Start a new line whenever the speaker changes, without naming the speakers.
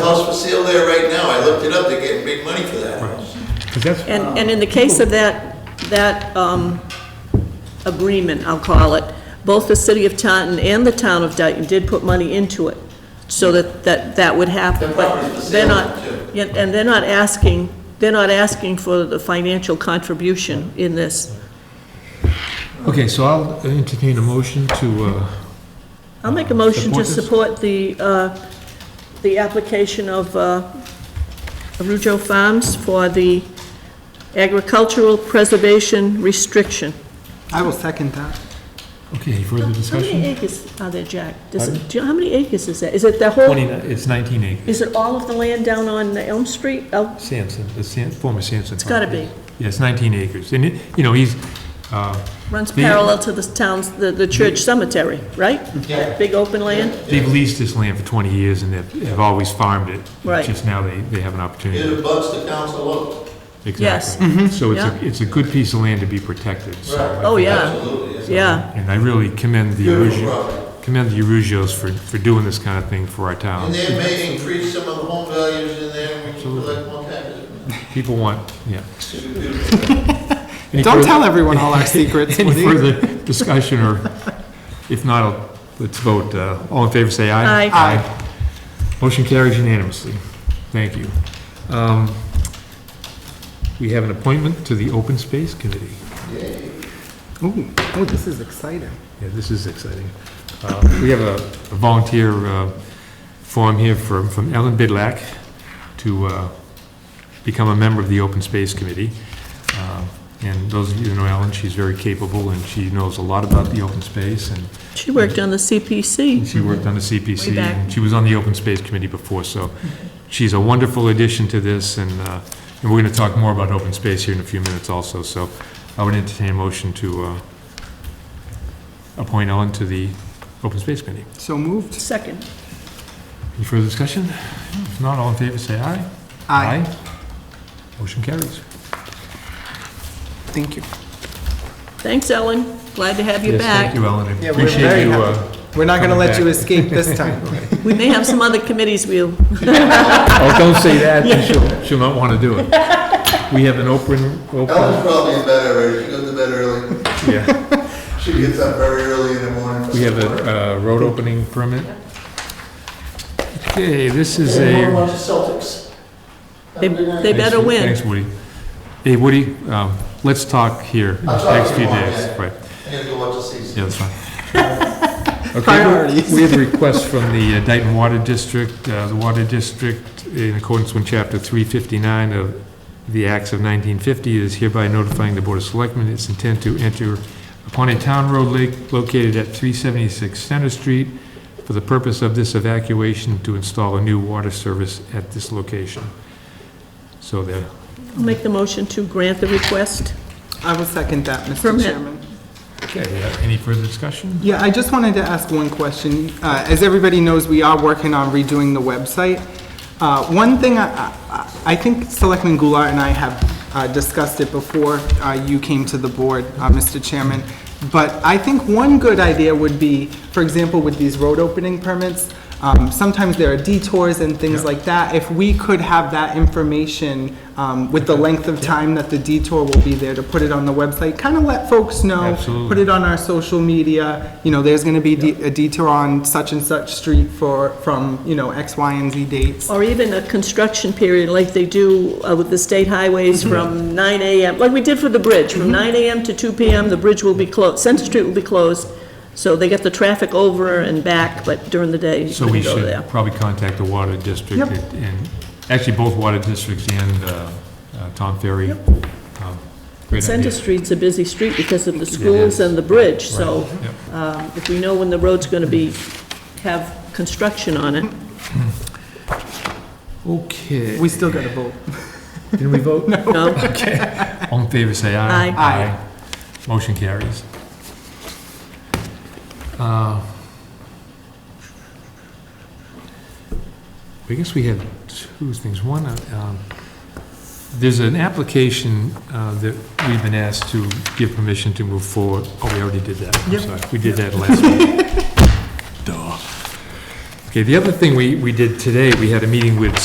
for sale there right now. I looked it up. They're getting big money for that house.
Because that's,
And, and in the case of that, that um, agreement, I'll call it, both the city of Taunton and the town of Dayton did put money into it, so that, that, that would happen.
The
But
property's for
they're
sale,
not,
too.
yeah, and they're not asking, they're not asking for the financial contribution in this.
okay, so I'll entertain a motion to, uh,
I'll make a motion to
Support
support the, uh, the application of uh, Arujo Farms for the agricultural preservation restriction.
I will second that.
okay, any further
How many
discussion?
acres are there, Jack? Does
Pardon?
it, do you, how many acres is that? Is it the whole,
Twenty, it's 19 acres.
is it all of the land down on Elm Street? Oh,
Sampson, the Sam- former Sampson.
It's gotta
property. Yeah, it's 19 acres. And, it- you know, he's, uh,
runs
The-
parallel to the town's, the, the church cemetery, right?
Yeah.
Big open land?
they've leased this land for 20 years and they've have always farmed it.
Right.
Just now they they have an opportunity.
It abuts the council look.
Yes.
Exactly. Mm-hmm. So it's
Yeah.
a, it's a good piece of land to be protected, so. I
Right.
Oh,
think-
yeah,
Absolutely. it's-
yeah.
And I really commend the
Beautiful
Arugio,
property.
commend the Arugios for, for doing this kind of thing for our
And
town.
they may increase some of the home values in there and we can collect more taxes.
People want, yeah.
It's a beautiful-
Any
Don't
further-
tell everyone all our secrets,
Any
would you?
further discussion, or if not, I'll- let's vote. Uh, All in favor, say aye.
Aye.
Aye.
Motion carries unanimously. Thank you. Um, We have an appointment to the Open Space Committee.
Yay.
Ooh, oh, this is exciting.
Yeah, this is exciting. Uh, We have a a volunteer uh, form here from from Ellen Bidlack to uh, become a member of the Open Space Committee. Uh, And those of you who know Ellen, she's very capable, and she knows a lot about the open space, and
She worked on the CPC.
she worked on the CPC,
Way back.
and she was on the Open Space Committee before, so she's a wonderful addition to this, and, uh, and we're gonna talk more about open space here in a few minutes also, so I would entertain a motion to, uh, appoint Ellen to the Open Space Committee.
So moved.
Second.
Any further discussion? If not, all in favor, say aye.
Aye.
Motion carries.
Thank you.
Thanks, Ellen. Glad to have you
Yes,
back.
Thank you, Ellen, I
Yeah, we're very
appreciate you,
happy.
uh,
We're not going to
Coming
let you
back.
escape this time.
We may have some other committees we'll,
oh, don't say that, then she'll, she'll not wanna do it. We have an open, open,
Oh.
Ellen's probably in bed already. She goes to bed early.
yeah.
She gets up very early in the morning.
We have a uh, road opening permit. Okay, this is a...
Celtics.
they, they better win.
Thanks, Woody. Hey, Woody, um, let's talk here in
I'll
the
talk
next few
tomorrow,
days.
yeah.
Right,
I gotta go watch the season.
yeah, that's fine. Okay,
Priorities.
We have a request from the uh, Dayton Water District. Uh, The Water District, in accordance with Chapter 359 of the Acts of 1950, is hereby notifying the Board of Selectmen its intent to enter upon a town road lake located at 376 Center Street for the purpose of this evacuation to install a new water service at this location. So there,
I'll Make the motion to grant the request.
I will second that, Mr.
Permit.
Chairman.
okay, uh, any further discussion?
Yeah, I just wanted to ask one question. Uh, As everybody knows, we are working on redoing the website. Uh, One thing, I- I I think Selectman Goulart and I have uh, discussed it before uh, you came to the board, uh, Mr. Chairman, but I think one good idea would be, for example, with these road opening permits, um, sometimes there are detours and things like that. If we could have that information um, with the length of time that the detour will be there, to put it on the website, kind of let folks know.
Absolutely.
Put it it on our social media, you know, there's gonna be de- a detour on such and such street for, from, you know, X, Y, and Z dates.
Or even a construction period like they do uh, with the state highways
Mm-hmm.
from 9 AM, like we did for the bridge, from 9 AM to 2 PM, the bridge will be closed, Center Street will be closed, so they get the traffic over and back, but during the day, you
So we
couldn't go
should
there.
probably contact the water district
Yep.
and- and, actually, both water districts and uh, uh, Tom Ferry. Um, great
Center
idea.
Street's a busy street because of the
is.
schools and the bridge, so
Right, yep.
um, if we know when the road's gonna be, have construction on it.
Okay.
We still gotta vote.
Didn't we vote?
No,
All in favor, say aye.
Aye.
Aye.
Motion carries. Uh, I guess we had two things. One, uh, um, there's an application uh, that we've been asked to give permission to move forward. Oh, we already did that. I'm
Yep.
sorry. We did that last week. Duh. Okay, the other thing we we did today, we had a meeting with